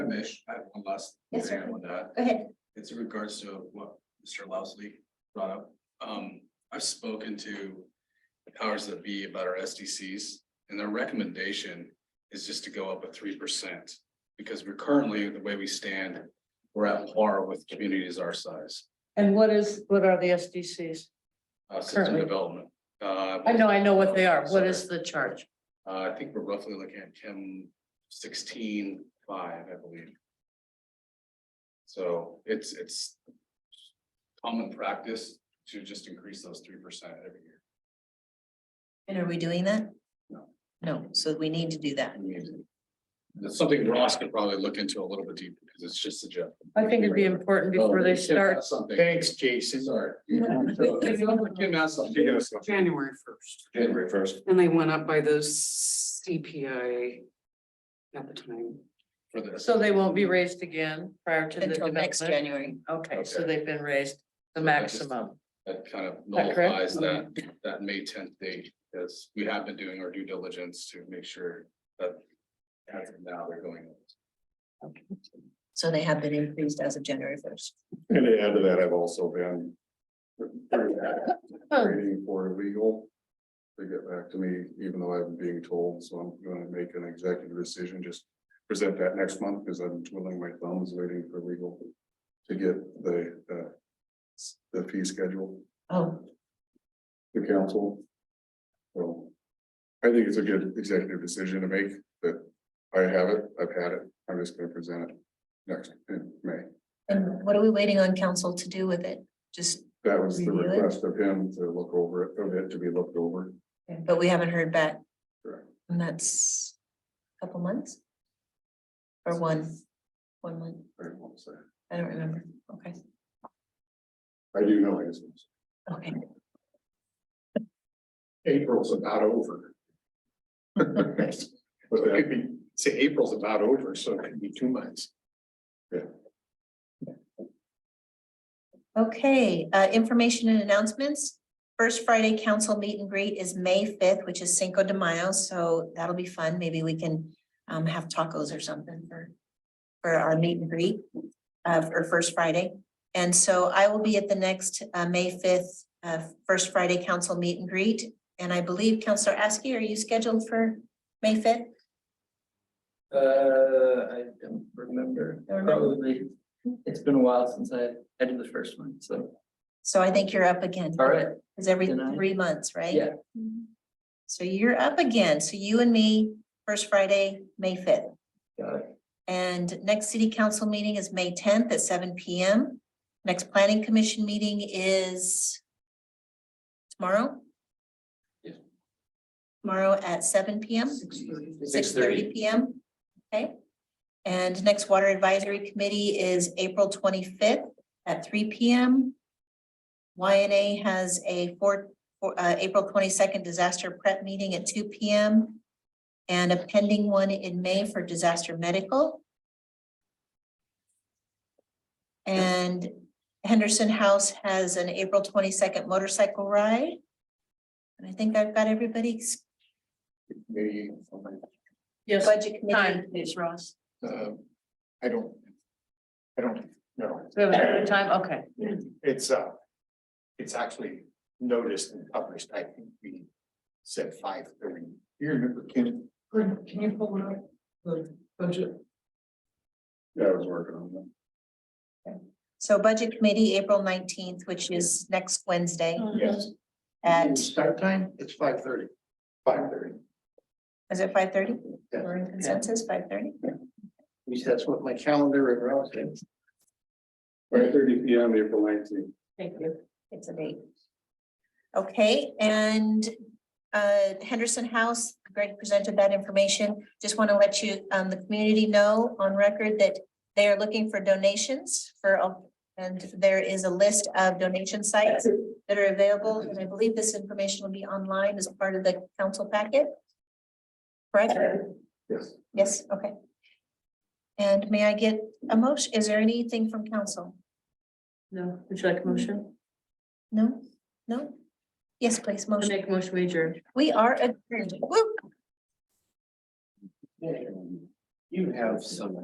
may, I have one last. Yes, sir. thing On that, Go ahead. it's in regards to what Mr. Lousy brought up. Um, I've spoken to the powers that be about our SDCs, and their recommendation is just to go up a three percent. Because we're currently, the way we stand, we're at par with communities our size, And what is, what are the SDCs? uh, system Currently. development. Uh, I know, I know what they are. What is the charge? Uh, I think we're roughly looking at Kim sixteen five, I believe. So it's, it's common practice to just increase those three percent every year. And are we doing that? No. No, so we need to do that. I mean, That's something Ross could probably look into a little bit deeper, because it's just a joke. Oh, I think it'd be important before they start. Something. Thanks, Jason. Sorry. Kim asked something. January first, January first and they went up by those CPI at the time. for this. So they won't be raised again prior to the Until next development? January. Okay, so Okay. they've been raised the So that just- maximum. That kind of that correct? nullifies Mm-hmm. that, that May tenth date, because we have been doing our due diligence to make sure that. As of now, they're going. So they have been increased as of January first. And to add to that, I've also been. Oh. Waiting for legal. To get back to me, even though I'm being told, so I'm gonna make an executive decision, just present that next month, because I'm twiddling my thumbs waiting for legal. To get the, uh. s- The fee schedule Oh, to council. So. I think it's a good executive decision to make, but I have it, I've had it, I'm just gonna present it next, in May. and what are we waiting on council to do with it? Just, That was the Review it? request of him to look over it, of it to be looked over. but we haven't heard back. Correct. And that's a couple months? Or one, one month, I won't say. I don't remember. Okay, I do know it is. okay. April's about over. But it could be, say April's about over, so it could be two months. Okay, uh, information and announcements. First Friday council meet and greet is May fifth, which is Cinco de Mayo, so that'll be fun. Maybe we can um, have tacos or something for for our meet and greet uh, for First Friday. And so I will be at the next uh, May fifth, uh, First Friday council meet and greet. And I believe Counselor Askey, are you scheduled for May fifth? Uh, I don't remember, probably, it's been a while since I, I did the first one, so, So I think you're up again. all right, Is every Good night. three months, right? yeah, So you're up again. So you and me, First Friday, May fifth. got it. And next city council meeting is May tenth at seven P M. Next planning commission meeting is tomorrow? Yes. Tomorrow at seven P M? Six thirty P M, okay? And next water advisory committee is April twenty-fifth at three P M. Y N A has a four, four- uh, April twenty-second disaster prep meeting at two P M. And a pending one in May for disaster medical. And Henderson House has an April twenty-second motorcycle ride. And I think I've got everybody's Maybe, Yes, budget committee. time, please, Ross. uh, I don't. I don't know. Do we have a certain time? Okay. It's, uh, it's actually noticed and published. I think we said five thirty. You remember, Ken? Can you pull up the budget? Yeah, I was working on that. So budget committee, April nineteenth, which is next Wednesday Oh, Yes. at, Start time, it's five thirty. Five thirty. is it five thirty? Yeah. We're in consensus, five thirty? That's what my calendar and route is. Five thirty P M, April nineteenth. Thank you. It's a date. Okay, and uh, Henderson House, Greg presented that information. Just want to let you, um, the community know on record that they are looking for donations for, all- and there is a list of donation sites that are available, and I believe this information will be online as part of the council packet. Correct? Yes. Yes, okay. And may I get a motion? Is there anything from council? No, would you like a motion? No? No? Yes, please, I'll motion. Make a motion, we adjourn. We are adjourned. Woo! You have some